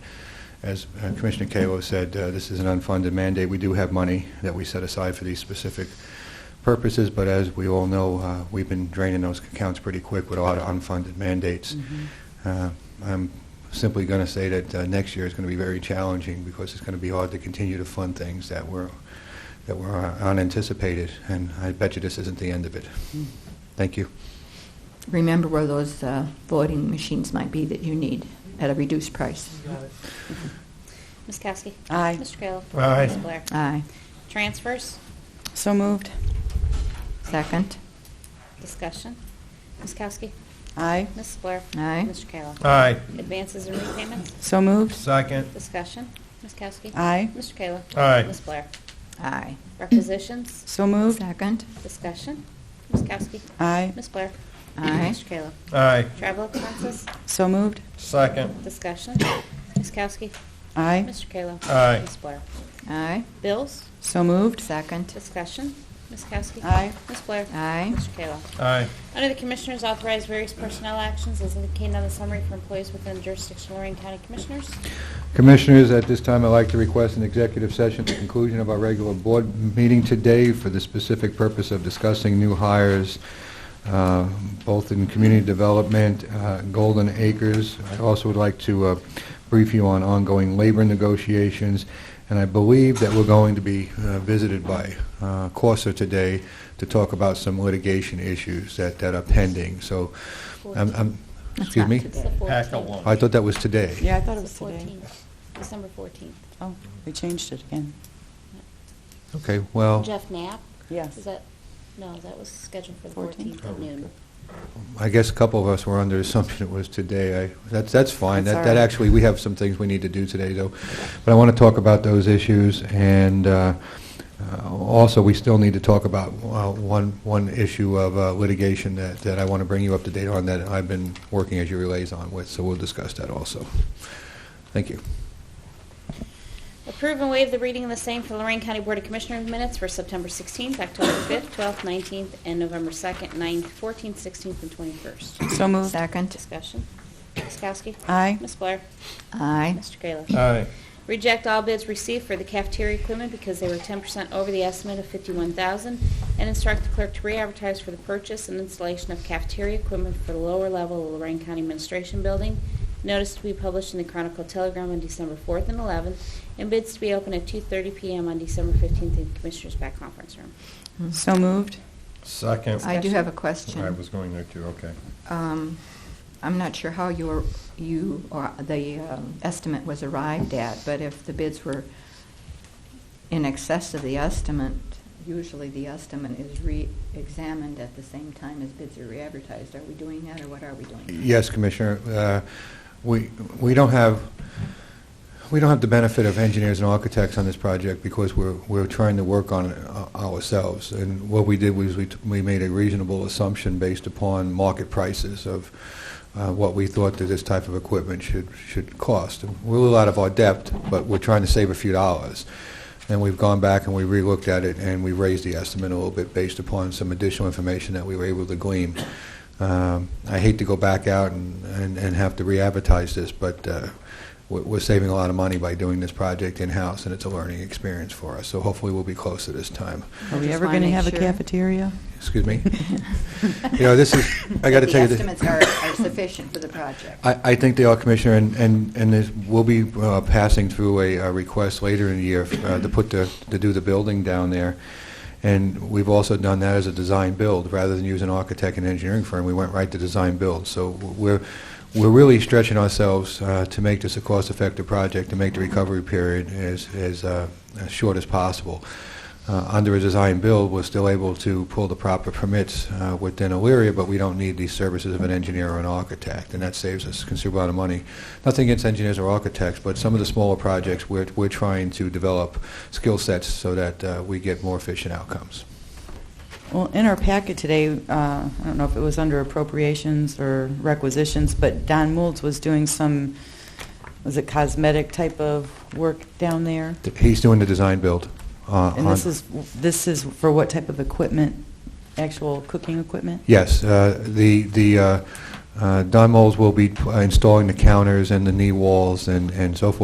As uh, Commissioner Kayla said, uh, this is an unfunded mandate. We do have money that we set aside for these specific purposes, but as we all know, uh, we've been draining those accounts pretty quick with a lot of unfunded mandates. Uh, I'm simply going to say that uh, next year is going to be very challenging because it's going to be hard to continue to fund things that were, that were uh, unanticipated, and I bet you this isn't the end of it. Thank you. Remember where those uh, voting machines might be that you need at a reduced price. Ms. Kowski. Aye. Mr. Kayla. Aye. Ms. Blair. Aye. Transfers. So moved. Second. Discussion. Ms. Kowski. Aye. Ms. Blair. Aye. Mr. Kayla. Aye. Advances and repayments. So moved. Second. Discussion. Ms. Kowski. Aye. Mr. Kayla. Aye. Ms. Blair. Aye. Requisitions. So moved. Second. Discussion. Ms. Kowski. Aye. Ms. Blair. Aye. Mr. Kayla. Aye. Travel expenses. So moved. Second. Discussion. Ms. Kowski. Aye. Mr. Kayla. Aye. Ms. Blair. Aye. Bills. So moved. Second. Discussion. Ms. Kowski. Aye. Ms. Blair. Aye. Mr. Kayla. Aye. Under the Commissioners, authorize various personnel actions as indicated on the summary for employees within the jurisdiction of Lorraine County Commissioners. Commissioners, at this time, I'd like to request an executive session at the conclusion of our regular board meeting today for the specific purpose of discussing new hires, uh, both in community development, uh, Golden Acres. I also would like to uh, brief you on ongoing labor negotiations, and I believe that we're going to be uh, visited by uh, Corsa today to talk about some litigation issues that that are pending. So, Um, I'm- I'm, That's excuse not me? today. It's the Pack a 14th. lunch. I thought that was today. Yeah, I thought it was It's the today. 14th, December 14th. Oh, we changed it again. Okay, well... Jeff Knapp, is Yes. that, no, that was scheduled for the 14th. 14th at noon. I guess a couple of us were under the assumption it was today. I, that's, that's fine. That's That, all that right. actually, we have some things we need to do today, though. But I want to talk about those issues, and uh, uh, also, we still need to talk about uh, one, one issue of uh, litigation that, that I want to bring you up to date on that I've been working as your liaison with, so we'll discuss that also. Thank you. Approve and waive the reading of the same for Lorraine County Board of Commissioners minutes for September 16th, October 5th, 12th, 19th, and November 2nd, 9th, 14th, 16th, and 21st. So moved. Second. Discussion. Ms. Kowski. Aye. Ms. Blair. Aye. Mr. Kayla. Aye. Reject all bids received for the cafeteria equipment because they were 10% over the estimate of 51000 and instruct the clerk to re-advertise for the purchase and installation of cafeteria equipment for the lower level of Lorraine County Administration Building. Notice to be published in the Chronicle Telegram on December 4th and 11th, and bids to be open at 2:30 PM on December 15th in Commissioners' back conference room. So moved. Second. I do have a I question. was going there too, okay. Um, I'm not sure how your, you, or the um, estimate was arrived at, but if the bids were in excess of the estimate, usually the estimate is re-examined at the same time as bids are re-advertised. Are we doing that, or what are we doing? Yes, Commissioner, Uh, we we don't have, we don't have the benefit of engineers and architects on this project because we're we're trying to work on it uh, ourselves. And what we did was we t- we made a reasonable assumption based upon market prices of uh, what we thought that this type of equipment should should cost. We're a little out of our depth, but we're trying to save a few dollars. And we've gone back and we relooked at it, and we raised the estimate a little bit based upon some additional information that we were able to glean. Um, I hate to go back out and, and, and have to re-advertise this, but uh, we're we're saving a lot of money by doing this project in-house, and it's a learning experience for us. So hopefully, we'll be closer this time. Are we Just ever wanna going to make have a sure. cafeteria? Excuse me. You know, this is, I got to tell you, The this- estimates are are sufficient for the project. I, I think they are, Commissioner, and, and, and this- we'll be uh, passing through a uh, request later in the year uh, to put the, to do the building down there. And we've also done that as a design build, rather than use an architect and engineering firm, we went right to design build. So we're, we're really stretching ourselves uh, to make this a cost-effective project, to make the recovery period as, as, uh, as short as possible. Uh, Under a design build, we're still able to pull the proper permits uh, within Elyria, but we don't need the services of an engineer or an architect, and that saves us a considerable amount of money. Nothing against engineers or architects, but some of the smaller projects, we're we're trying to develop skill sets so that uh, we get more efficient outcomes. Well, in our packet today, uh, I don't know if it was under appropriations or requisitions, but Don Moulds was doing some, was it cosmetic type of work down there? Th- He's doing the design build. uh, And this on- is, this is for what type of equipment? Actual cooking equipment? Yes, uh, the, the uh, uh, Don Moles will be uh, installing the counters and the knee walls and and so forth.